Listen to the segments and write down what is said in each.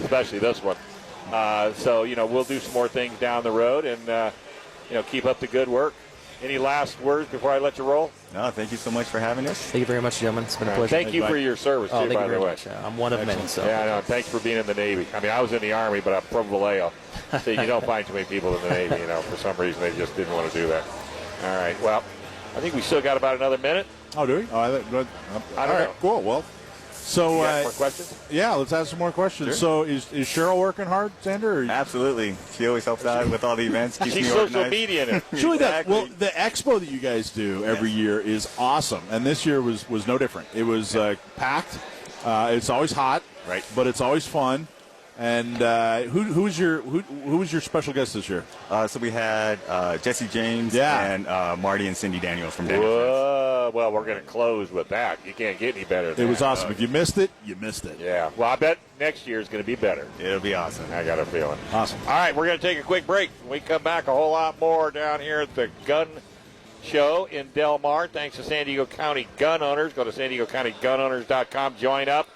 especially this one. Uh, so you know we'll do some more things down the road, and uh, you know keep up the good work. Any last words before I let you roll? No, thank you so much for having us. Thank you very much, gentlemen. It's been a pleasure. Thank you Bye. for your service, Oh, too, thank you by very the way. much. Uh, I'm one of men, Excellent. so Yeah, I know. Thanks for being in the Navy. I mean, I was in the Army, but I'm from Vallejo. So you don't find too many people in the Navy, you know. For some reason, they just didn't want to do that. All right. Well, I think we still got about another minute. Oh, do we? All right, good. I don't All right, know. cool. Well, So, You got uh, more questions? yeah, let's ask some more questions. So, is, is Cheryl working hard, Sander? Or absolutely. She always helps out with all the events, keeps She's me social organized. media in it. She really does. Exactly. Well, the expo that you guys do every year is awesome, and this year was was no different. It was uh, packed. Uh, it's always hot, Right. But it's always fun. And uh, who who's your who who was your special guest this year? Uh, so we had uh, Jesse James Yeah. and uh, Marty and Cindy Daniels from Daniel. Friends. Whoa. Well, we're going to close with that. You can't get any better It than was that. awesome. If you missed it, you missed it. Yeah. Well, I bet next year is going to be better. It'll be awesome. I got a feeling. Awesome. All right, we're going to take a quick break. When we come back, a whole lot more down here at the gun show in Del Mar. Thanks to San Diego County Gun Owners. Go to san diego county gunowners.com. Join up.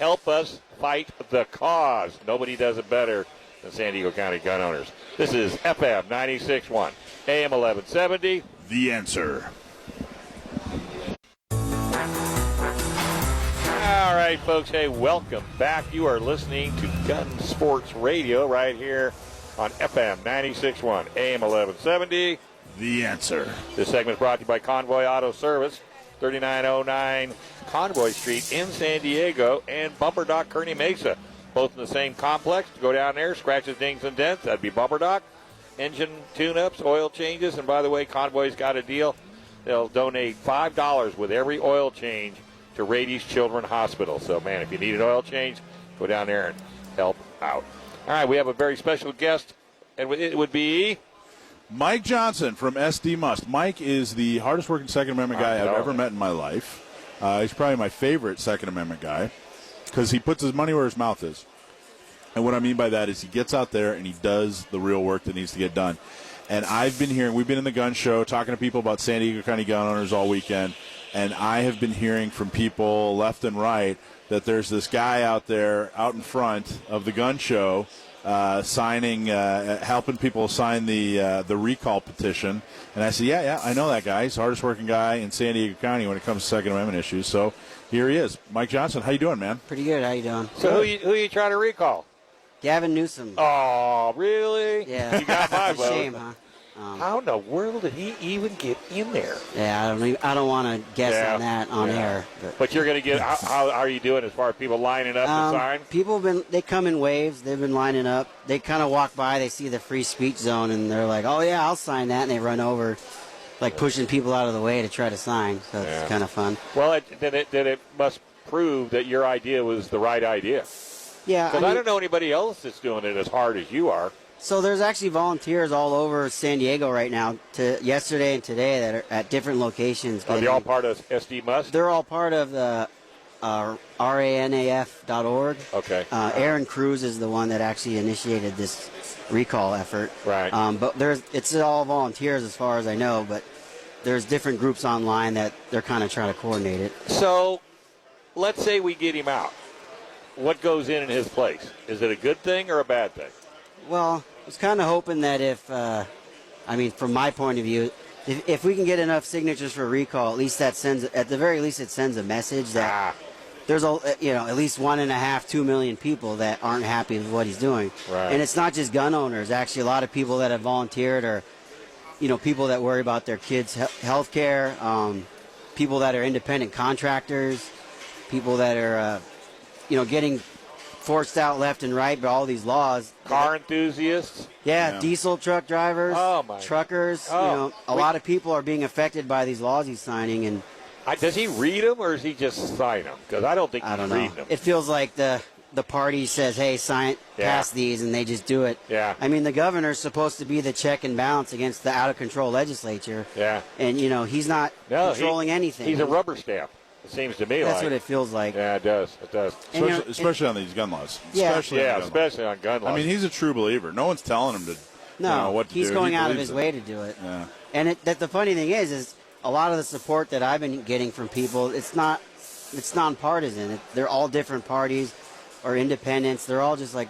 Help us fight the cause. Nobody does it better than San Diego County Gun Owners. This is FM 96.1, AM 1170. The answer. All right, folks. Hey, welcome back. You are listening to Gun Sports Radio right here on FM 96.1, AM 1170. The answer. This segment is brought to you by Convoy Auto Service, 3909 Convoy Street in San Diego, and Bumper Dock Kearney Mesa, both in the same complex. Go down there, scratches, dings, and dents. That'd be Bumper Dock. Engine tune ups, oil changes, and by the way, Convoy's got a deal. They'll donate $5 with every oil change to Rady's Children Hospital. So, man, if you need an oil change, go down there and help out. All right, we have a very special guest, and it would be. Mike Johnson from SD Must. Mike is the hardest working Second Amendment guy I know. I've ever met in my life. Uh, he's probably my favorite Second Amendment guy because he puts his money where his mouth is. And what I mean by that is he gets out there and he does the real work that needs to get done. And I've been hearing, we've been in the gun show talking to people about San Diego County gun owners all weekend. And I have been hearing from people left and right that there's this guy out there out in front of the gun show uh, signing, uh, helping people sign the uh, the recall petition. And I said, yeah, yeah, I know that guy. He's the hardest working guy in San Diego County when it comes to Second Amendment issues. So here he is. Mike Johnson, how you doing, man? Pretty good. How you doing? So, who you, who you trying to recall? Gavin Newsom. Oh, really? Yeah. You got my It's a vote. shame, huh? Um, How in the world did he even get in there? yeah, I don't. Even, I don't want to guess Yeah. on that on Yeah. air. But, But you're going to get. How, how are you doing as far as people lining up um, to sign? people have been. They come in waves. They've been lining up. They kind of walk by. They see the free speech zone, and they're like, "Oh yeah, I'll sign that." And they run over, like pushing people out of the way to try to sign. So it's Yeah. kind of fun. Well, it, then it then it must prove that your idea was the right idea. Yeah. Because I, mean- don't know anybody else that's doing it as hard as you are. So there's actually volunteers all over San Diego right now. To yesterday and today that are at different locations. Are Oh, they getting- all part of SD Must? They're all part of the uh, ranaf.org. Okay. Uh, Aaron Cruz is the one that actually initiated this recall effort. Right. Um, but there's it's all volunteers as far as I know, but there's different groups online that they're kind of trying to coordinate it. So, let's say we get him out. What goes in in his place? Is it a good thing or a bad thing? Well, I was kind of hoping that if, uh, I mean, from my point of view, if, if we can get enough signatures for recall, at least that sends, at the very least, it sends a message that Ah, there's a, eh, you know, at least one and a half, two million people that aren't happy with what he's doing. Right. And it's not just gun owners. Actually, a lot of people that have volunteered or, you know, people that worry about their kids' health care, um, people that are independent contractors, people that are, uh, you know, getting forced out left and right by all these laws. car enthusiasts. Yeah, Yeah. diesel truck drivers, Oh, my- truckers. Oh. you know, a We- lot of people are being affected by these laws he's signing, and I, does he read them or does he just sign them? Because I don't think I he's don't reading know. them. It feels like the the party says, "Hey, sign Yeah. pass these," and they just do it. Yeah. I mean, the governor's supposed to be the check and balance against the out of control legislature. Yeah. and you know he's not No, he- controlling anything. He's a rubber stamp. It seems to me That's like. what it feels like. yeah, it does. It does. And, you know, Especially, especially on these gun laws. Yeah. Especially on Yeah, gun laws. especially on gun laws. I mean, he's a true believer. No one's telling him to. No, you know, what to he's do. going He out of believes his it. way to do it. Yeah. And it, that the funny thing is, is a lot of the support that I've been getting from people, it's not, it's nonpartisan. It, they're all different parties. or independents. They're all just like